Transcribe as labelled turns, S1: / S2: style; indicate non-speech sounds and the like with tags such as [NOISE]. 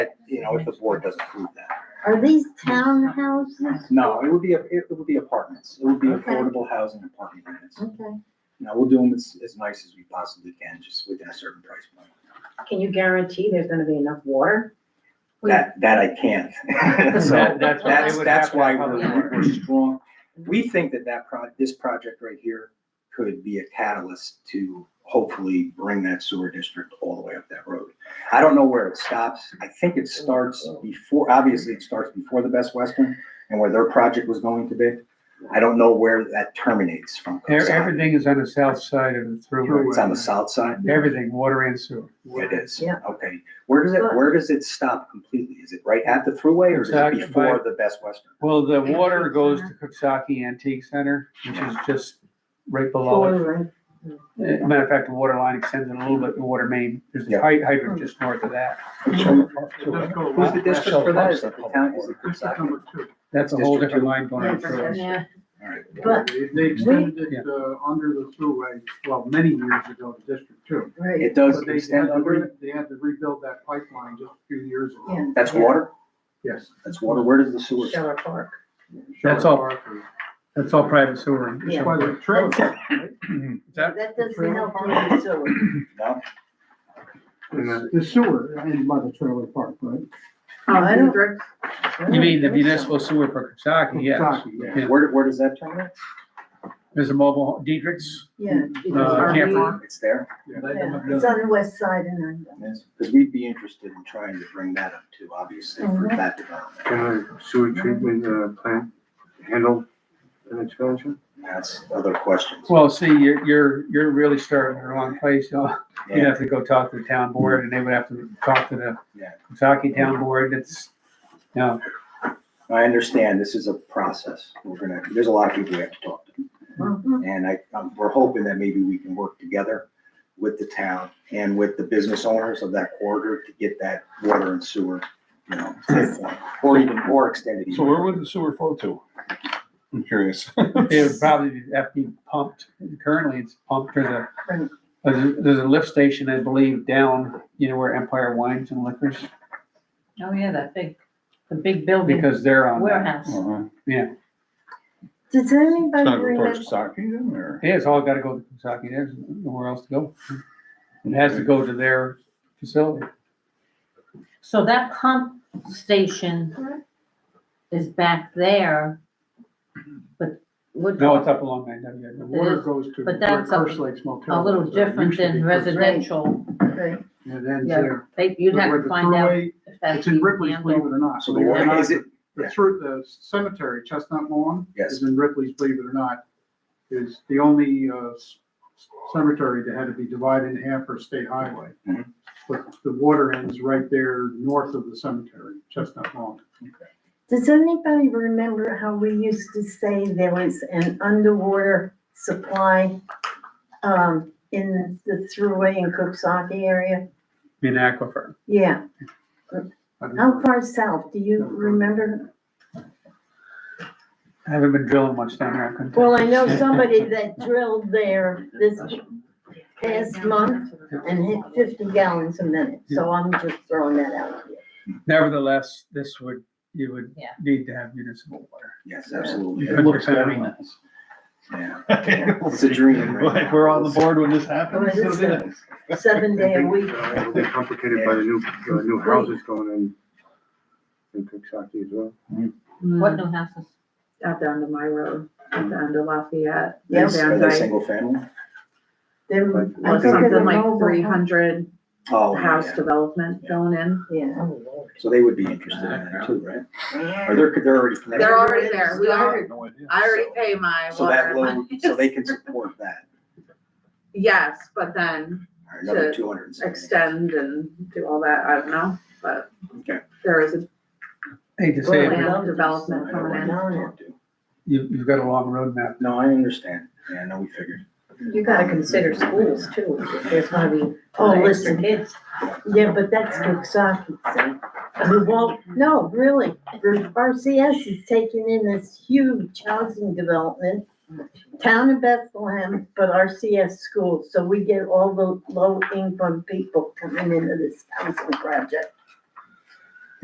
S1: you know, if the board doesn't approve that.
S2: Are these townhouses?
S1: No, it would be, a- it would be apartments. It would be
S2: Okay.
S1: affordable housing apartment units.
S2: Okay.
S1: You know, we'll do them as, as nice as we possibly can, just within a certain price point.
S3: Can you guarantee there's gonna be enough water?
S2: We-
S1: That, that I can't. [LAUGHS] So
S4: That- that's why they
S1: that's,
S4: would have
S1: that's
S4: to
S1: why
S4: have public
S1: we're,
S4: works.
S1: we're strong. We think that that pro, this project right here could be a catalyst to hopefully bring that sewer district all the way up that road. I don't know where it stops. I think it starts
S4: Oh.
S1: before, obviously it starts before the Best Western and where their project was going to be. I don't know where that terminates from.
S4: E- Everything is on the south side of the throughway.
S1: It's on the south side?
S4: Everything, water and sewer.
S1: It is.
S3: Yeah.
S1: Okay. Where does it, where does it stop completely? Is it right at the thruway or is it
S4: Exactly.
S1: before the Best Western?
S4: Well, the water goes to Cooksaki Antique Center, which is just right below it. Uh, Matter of fact, the water line extends in a little bit, the water main, there's a
S1: Yeah.
S4: hy- hydrant just north of that.
S1: Who's the district for that? Is it the town? Is it Coxsackie?
S4: That's a whole
S1: District
S4: different line going
S2: Yeah,
S4: through.
S2: yeah.
S1: All right.
S3: But
S5: They extended it, uh, under the thruway, well, many years ago to District Two.
S1: It does
S5: But they had
S1: extend
S5: to re-
S1: under, it?
S5: They had to rebuild that pipeline just a few years ago.
S3: Yeah.
S1: that's water?
S5: Yes.
S1: That's water. Where does the sewer? stop?
S3: Sheller Park.
S4: That's
S5: Charlotte
S4: all-
S5: Park or-
S4: That's all private sewer.
S3: Yeah.
S5: That's why they're trailers, right?
S4: Is that-
S2: That doesn't help on the sewer.
S1: No?
S5: The the sewer in by the trailer park, right?
S2: Oh, I don't.
S4: You mean the municipal sewer for Cooksaki, yes.
S5: Coxsackie,
S4: Yeah.
S1: Where, where does that terminate?
S4: There's a mobile, home- Diedrich's,
S2: Yeah.
S4: uh,
S2: Are we-
S4: camper.
S1: It's there?
S5: Yeah.
S2: Yeah, It's on the west side and I'm done.
S1: Because we'd be interested in trying to bring that up too, obviously, for
S3: Mm-hmm.
S2: Mhm.
S1: that development.
S6: Can a sewer treatment uh, plant handle an expansion?
S1: That's other questions.
S4: Well, see, you're, you're, you're really starting in the wrong place, you know. You'd have to go talk to the town board and they would have to talk to the
S1: Yeah.
S4: Kentucky town board. It's, you know,
S1: I understand this is a process. We're gonna, there's a lot of people we have to talk to.
S7: Mm-hmm.
S1: And I, um, we're hoping that maybe we can work together with the town and with the business owners of that corridor to get that water and sewer, you know, or even, or extended. even.
S8: So where would the sewer flow to? I'm curious. [LAUGHS]
S4: it would probably have to be pumped. Currently, it's pumped through the, there's a- there's a lift station, I believe, down, you know, where Empire Wines and Liquors,
S9: Oh, yeah, that big, the big building
S4: because they're
S5: um,
S4: on that.
S9: warehouse.
S8: Uh-huh.
S2: Does
S8: It's
S2: anybody
S8: not going
S2: remember?
S8: towards Saki then, or?
S4: Yeah, it's all gotta go to Kentucky. There's nowhere else to go. It has to go to their facility.
S9: So that pump station is back there, but
S4: No,
S9: Woodlawn,
S4: it's up along that,
S5: The water goes to where
S9: But that's a-
S5: First Lakes Motel.
S9: a little
S5: is, or it
S9: different
S5: used to be
S9: than
S5: First Lakes.
S9: residential.
S2: Right.
S5: It ends
S9: Yeah.
S5: there.
S9: They, you'd
S5: But
S9: have
S5: where
S9: to
S5: the
S9: find out
S5: thruway-
S9: if that's
S5: It's in
S9: even
S5: Ripley's,
S9: handled.
S5: believe it or not.
S1: So the
S5: Believe it or
S1: water,
S5: not,
S1: is it,
S5: The through the cemetery, Chestnut Lawn.
S1: Yes.
S5: Is in Ripley's, believe it or not, is the only uh, s- cemetery that had to be divided in half for state highway.
S1: Mhm.
S5: But the water ends right there north of the cemetery, Chestnut Lawn.
S8: [LAUGHS]
S2: Does anybody remember how we used to say there was an underwater supply um, in the thruway in Cooksaki area?
S4: in Aquifer.
S2: Yeah,
S5: I've
S2: how
S5: never-
S2: far south, do you remember?
S4: I haven't been drilling much down there. I couldn't tell
S2: Well, I
S4: you. [LAUGHS]
S7: [LAUGHS]
S2: know somebody that drilled there this e, past month and hit fifty gallons a minute, so I'm just throwing that out there.
S4: Nevertheless, this would, you would
S9: Yeah.
S4: need to have municipal water.
S1: yes, absolutely.
S4: You
S1: It
S4: couldn't
S1: looks
S4: have
S1: good.
S4: it.
S1: Yeah. It's a dream. right now.
S8: We're on the board when this
S2: Oh,
S8: happens.
S2: it is a Seven
S7: [LAUGHS]
S2: day a week.
S6: It'll be complicated by the new, uh, new houses going in, in Coxsackie as well.
S9: What new houses?
S7: out the end of my road, at the end of Lafayette.
S2: Yes,
S1: Are they single family?
S2: They're,
S6: Like,
S2: I
S7: Like
S2: think of the
S7: something like three
S2: mobile.
S7: hundred
S1: Oh,
S7: house
S1: yeah.
S7: development going in.
S2: Yeah.
S9: Oh,
S1: So they would be interested in that too, right? Or they're, they're already connected.
S7: They're already there. We already,
S8: No idea.
S7: I already pay my
S1: So
S7: water.
S1: that
S7: and
S1: load,
S7: [LAUGHS] my-
S1: so they can support that.
S7: Yes, but then
S1: All right, Another
S7: To
S1: two hundred and seventy.
S7: extend and do all that. I don't know, but
S1: Okay.
S7: there is a
S4: Hate to say it, but
S7: land development
S1: I know
S7: coming
S1: what
S7: in.
S1: you're talking to.
S4: you, you've got a long road map.
S1: No, I understand. Yeah, no, we figured.
S3: You gotta consider schools too, if there's gonna be
S2: Oh,
S3: extra
S2: listen,
S3: kids.
S2: yeah, but that's Coxsackie, see? Well, no, really, RCS is taking in this huge housing development. Town of Bethlehem, but RCS schools, so we get all the low income people coming into this housing project.